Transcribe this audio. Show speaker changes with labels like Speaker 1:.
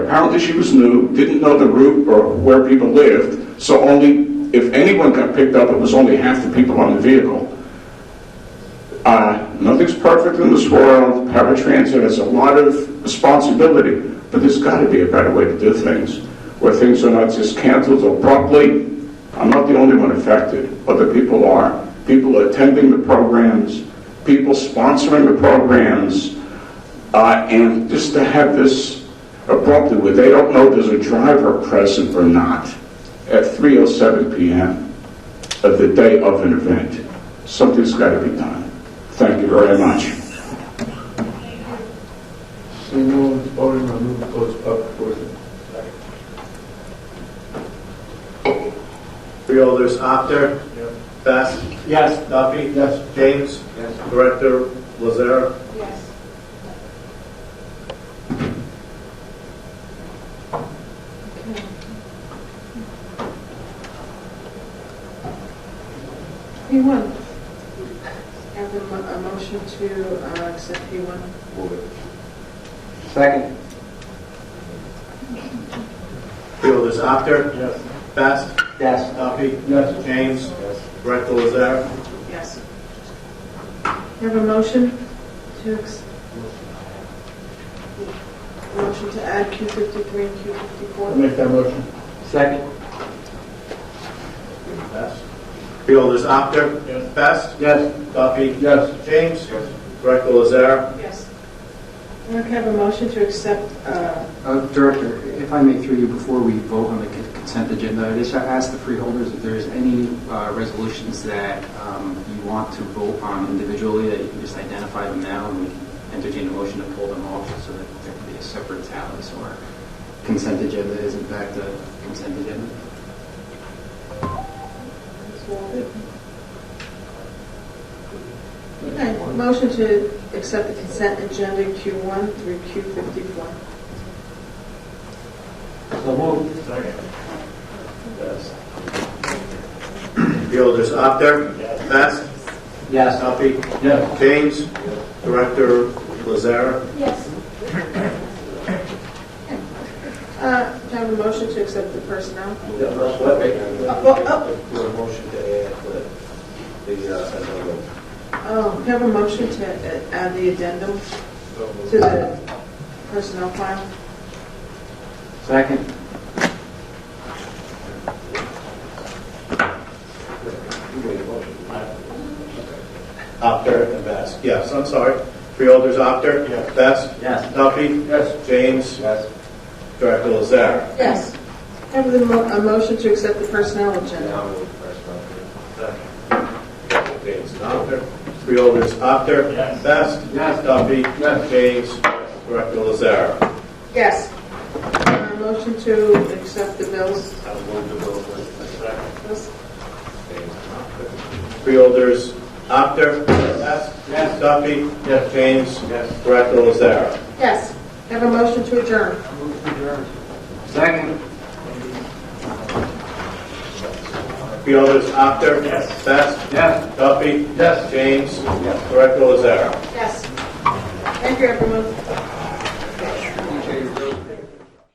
Speaker 1: apparently she was new, didn't know the route or where people lived, so only, if anyone got picked up, it was only half the people on the vehicle. Uh, Nothing's perfect in this world, paratransit has a lot of responsibility, but there's got to be a better way to do things, where things are not just canceled abruptly. I'm not the only one affected, other people are. People attending the programs, people sponsoring the programs, uh, and just to have this abruptly, where they don't know there's a driver present or not, at 3:07 PM of the day of an event. Something's got to be done. Thank you very much.
Speaker 2: Seeing no one's voting, I move to close public portion.
Speaker 3: Freeholders, Actor. Best. Yes. Duffy.
Speaker 2: Yes.
Speaker 3: James. Yes. Director Lazare.
Speaker 4: Yes. Okay. P1. Have a mo- a motion to uh, accept P1.
Speaker 2: Second.
Speaker 3: Freeholders, Actor.
Speaker 2: Yes.
Speaker 3: Best.
Speaker 2: Yes.
Speaker 3: Duffy.
Speaker 2: Yes.
Speaker 3: James.
Speaker 2: Yes.
Speaker 3: Director Lazare.
Speaker 4: Yes. Have a motion to, ex- motion to add Q53 and
Speaker 2: I'll
Speaker 4: Q54.
Speaker 2: make that motion. Second.
Speaker 3: Best. Freeholders, Actor.
Speaker 2: Yes.
Speaker 3: Best.
Speaker 2: Yes.
Speaker 3: Duffy.
Speaker 2: Yes.
Speaker 3: James. Yes. Director Lazare.
Speaker 4: Yes. Okay, have a motion to accept uh,
Speaker 5: Uh, Director, if I may through you, before we vote on the con- consent agenda, I just ask the freeholders if there's any uh, resolutions that um, you want to vote on individually, that you can just identify them now, and we can entertain a motion to pull them off so that there can be a separate tally, so our consent agenda is in fact a consent agenda.
Speaker 4: Okay, motion to accept the consent agenda Q1 through Q54.
Speaker 2: So moved. Second. Yes.
Speaker 3: Freeholders, Actor. Best.
Speaker 2: Yes.
Speaker 3: Duffy.
Speaker 2: Yes.
Speaker 3: James. Director Lazare.
Speaker 4: Yes. Uh, do I have a motion to accept the personnel? oh.
Speaker 6: Do a motion to add the, the, uh, another.
Speaker 4: Oh, do I have a motion to uh, add the addendum to the personnel file?
Speaker 2: Second.
Speaker 3: Actor and Best. Yes, I'm sorry. Freeholders, Actor. Best.
Speaker 2: Yes.
Speaker 3: Duffy.
Speaker 2: Yes.
Speaker 3: James.
Speaker 2: Yes.
Speaker 3: Director Lazare.
Speaker 4: Yes. Do I have the mo- a motion to accept the personnel agenda?
Speaker 6: Now move first one.
Speaker 3: James Actor. Freeholders, Actor.
Speaker 2: Yes.
Speaker 3: Best.
Speaker 2: Yes.
Speaker 3: Duffy.
Speaker 2: Yes.
Speaker 3: James. Director Lazare.
Speaker 4: Yes. Uh, Motion to accept the bills.
Speaker 6: I'll move the bill first.
Speaker 3: Freeholders, Actor. Best.
Speaker 2: Yes.
Speaker 3: Duffy.
Speaker 2: Yes.
Speaker 3: James.
Speaker 2: Yes.
Speaker 3: Director Lazare.
Speaker 4: Yes. Have a motion to adjourn.
Speaker 2: Second.
Speaker 3: Freeholders, Actor. Best.
Speaker 2: Yes.
Speaker 3: Duffy.
Speaker 2: Yes.
Speaker 3: James. Director Lazare.
Speaker 4: Yes. Thank you, everyone.